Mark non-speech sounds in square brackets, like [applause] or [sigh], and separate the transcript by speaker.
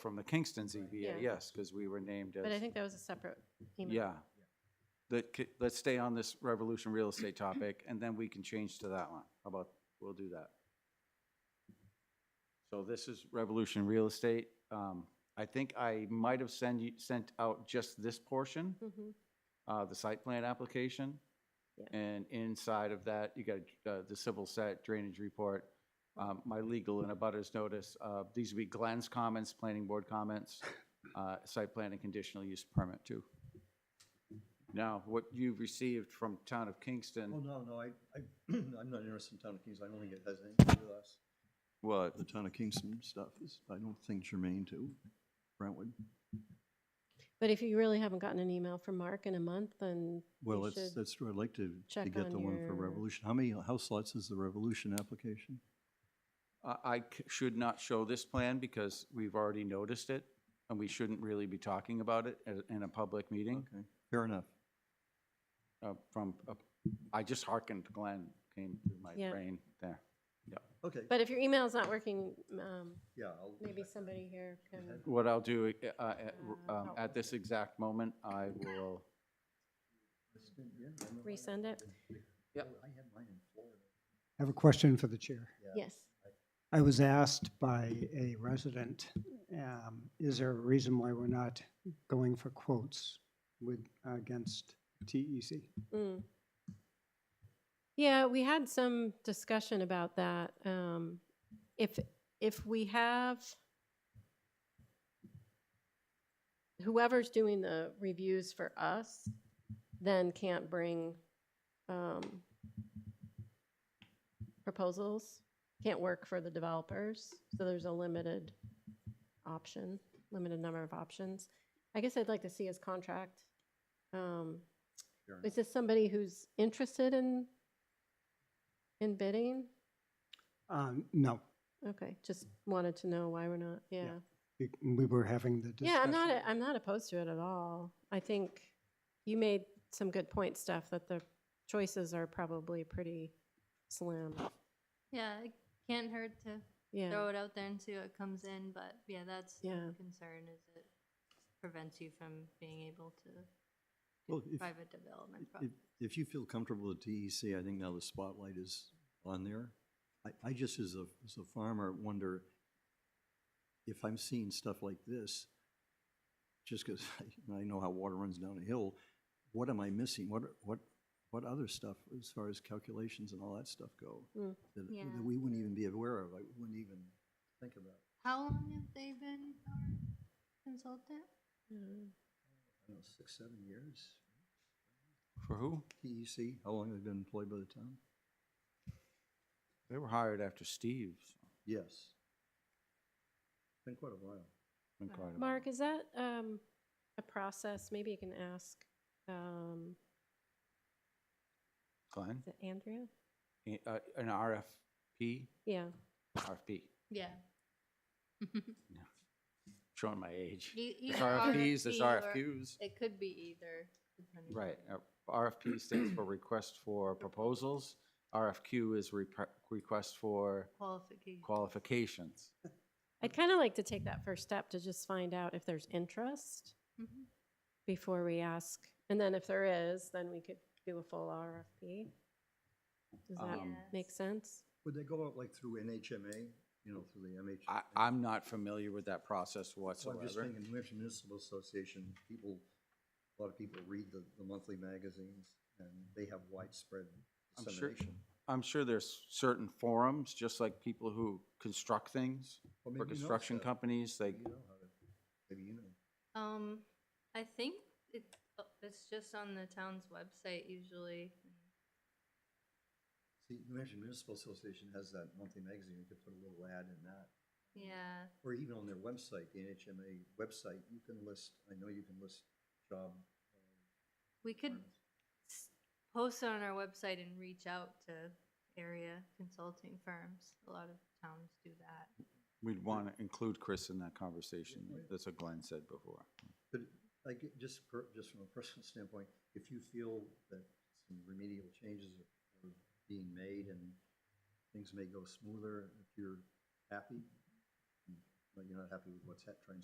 Speaker 1: from the Kingston ZBA,
Speaker 2: Yeah.
Speaker 1: yes, because we were named as.
Speaker 2: But I think that was a separate email.
Speaker 1: Yeah. That, c- let's stay on this Revolution Real Estate topic, and then we can change to that one. How about, we'll do that. So this is Revolution Real Estate. Um, I think I might have send you, sent out just this portion,
Speaker 2: Mhm.
Speaker 1: uh, the site plan application.
Speaker 2: Yeah.
Speaker 1: And inside of that, you got, uh, the civil set drainage report, um, my legal and abutters notice. Uh, these would be Glenn's comments, planning board comments, uh, site plan and conditional use permit too. Now, what you've received from Town of
Speaker 3: Oh,
Speaker 1: Kingston,
Speaker 3: no, no, I, I, [clears throat] I'm not interested in Town of Kingston, I don't think it has anything to do with us.
Speaker 1: well,
Speaker 3: The Town of Kingston stuff is, I don't think germane to Brentwood.
Speaker 2: But if you really haven't gotten an email from Mark in a month, then
Speaker 3: Well,
Speaker 2: You
Speaker 3: that's,
Speaker 2: should
Speaker 3: that's true, I'd like to, to
Speaker 2: check
Speaker 3: get
Speaker 2: on
Speaker 3: the one for
Speaker 2: your-
Speaker 3: Revolution. How many house lots is the Revolution application?
Speaker 1: I, I c- should not show this plan because we've already noticed it, and we shouldn't really be talking about it at- in a public meeting.
Speaker 3: Okay, fair enough.
Speaker 1: uh, From, uh, I just hearkened Glenn came through my
Speaker 2: Yeah.
Speaker 1: brain there.
Speaker 3: Okay,
Speaker 2: but if your email's not working, um,
Speaker 3: yeah, I'll.
Speaker 2: maybe somebody here can.
Speaker 1: What I'll do uh, uh, at-
Speaker 2: Uh,
Speaker 1: um, at this exact moment, I will,
Speaker 3: Yeah, I know I-
Speaker 2: Resend it?
Speaker 1: Yep.
Speaker 3: I had mine in Florida.
Speaker 4: I have a question for the chair.
Speaker 3: Yeah.
Speaker 2: Yes.
Speaker 4: I was asked by a resident, um, is there a reason why we're not going for quotes with, against E TEC?
Speaker 2: Mm. Yeah, we had some discussion about that. Um, if, if we have whoever's doing the reviews for us, then can't bring, um, proposals, can't work for the developers. So there's a limited option, limited number of options. I guess I'd like to see his contract. Um,
Speaker 3: Fair enough.
Speaker 2: is this somebody who's interested in, in bidding?
Speaker 4: Um, No,
Speaker 2: Okay, just wanted to know why we're not, yeah.
Speaker 4: we- we were having the discussion.
Speaker 2: Yeah, I'm not, I'm not opposed to it at all. I think you made some good point, Steph, that the choices are probably pretty slim.
Speaker 5: Yeah, it can't hurt to
Speaker 2: Yeah,
Speaker 5: throw it out there and see what comes in, but yeah, that's the
Speaker 2: Yeah.
Speaker 5: concern is it prevents you from being able to
Speaker 3: Well, if-
Speaker 5: private development.
Speaker 3: If,
Speaker 5: projects.
Speaker 3: if you feel comfortable with TEC, I think now the spotlight is on there. I, I just, as a, as a farmer, wonder if I'm seeing stuff like this, just because [laughs] I know how water runs down a hill, what am I missing? What, are- what, what other stuff as far as calculations and all that stuff go?
Speaker 2: Mm.
Speaker 3: That,
Speaker 5: Yeah.
Speaker 3: that we wouldn't even be aware of, I wouldn't even think about.
Speaker 5: How long have they been our consultant?
Speaker 2: Mm.
Speaker 3: I don't know, six, seven years?
Speaker 1: for who?
Speaker 3: TEC, how long have they been employed by the town?
Speaker 1: They were hired after Steve.
Speaker 3: Yes. Been quite a while.
Speaker 1: Been quite a while.
Speaker 2: Mark, is that um, a process, maybe you can ask, um,
Speaker 1: Glenn,
Speaker 2: is it Andrea?
Speaker 1: eh, uh, an RFP,
Speaker 2: Yeah,
Speaker 1: RFP,
Speaker 5: Yeah. [laughs] E,
Speaker 1: showing my age.
Speaker 5: Either
Speaker 1: There's RFPs, there's
Speaker 5: RFP or-
Speaker 1: RFQs.
Speaker 5: It could be either. depending
Speaker 1: Right.
Speaker 5: on-
Speaker 1: uh, RFP stands for request for proposals. RFQ is repre- request for
Speaker 5: Qualification.
Speaker 1: qualifications.
Speaker 2: I'd kind of like to take that first step to just find out if there's interest.
Speaker 5: Mhm.
Speaker 2: before we ask, and then if there is, then we could do a full RFP. Does that
Speaker 1: Um,
Speaker 2: make sense?
Speaker 3: Would they go out like through NHMA, you know, through the MH?
Speaker 1: I, I'm not familiar with that process
Speaker 3: So I'm just
Speaker 1: whatsoever.
Speaker 3: thinking, New Hampshire Municipal Association, people, a lot of people read the, the monthly magazines, and they have widespread
Speaker 1: I'm sure-
Speaker 3: dissemination.
Speaker 1: I'm sure there's certain forums, just like people who construct things,
Speaker 3: Or
Speaker 1: for
Speaker 3: maybe you know
Speaker 1: construction
Speaker 3: stuff.
Speaker 1: companies, they,
Speaker 3: Maybe you know how to- Maybe you know.
Speaker 5: Um, I think it, uh, it's just on the town's website usually.
Speaker 3: See, New Hampshire Municipal Association has that monthly magazine, you could put a little ad in that.
Speaker 5: Yeah,
Speaker 3: Or even on their website, the NHMA website, you can list, I know you can list job. uh,
Speaker 5: we could
Speaker 3: requirements.
Speaker 5: s- post it on our website and reach out to area consulting firms. A lot of towns do that.
Speaker 1: we'd want to include Chris in that conversation. That's what Glenn said before.
Speaker 3: But like, it- just, per- just from a personal standpoint, if you feel that some remedial changes are are being made and things may go smoother, if you're happy, but you're not happy with what's hap- trying to